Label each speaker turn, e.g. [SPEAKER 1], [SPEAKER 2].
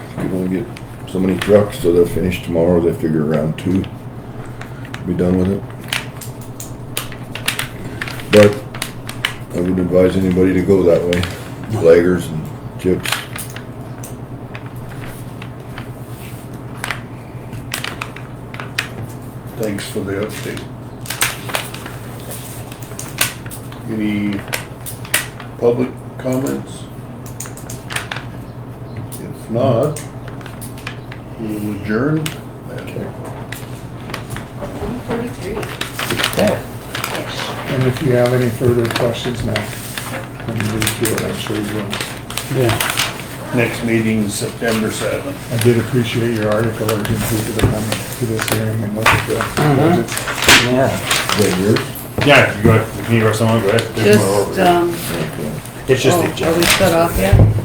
[SPEAKER 1] can only get so many trucks, so they'll finish tomorrow, they figure around two. Be done with it. But I wouldn't advise anybody to go that way, laggers and chips.
[SPEAKER 2] Thanks for the update. Any public comments? If not, we'll adjourn.
[SPEAKER 3] Forty-three-ish.
[SPEAKER 4] And if you have any further questions now, when you read through it, I'm sure you will.
[SPEAKER 5] Yeah,
[SPEAKER 2] Next meeting is September seventh.
[SPEAKER 4] I did appreciate your article urgency to the coming to this hearing and look at the budgets.
[SPEAKER 5] yeah.
[SPEAKER 1] Is that yours?
[SPEAKER 6] Yeah, you go, ahead. if you need someone, go ahead. There's more over
[SPEAKER 3] Just,
[SPEAKER 6] here.
[SPEAKER 3] um,
[SPEAKER 1] Okay.
[SPEAKER 6] It's
[SPEAKER 3] oh,
[SPEAKER 6] just the
[SPEAKER 3] are we
[SPEAKER 6] agenda.
[SPEAKER 3] shut off yet?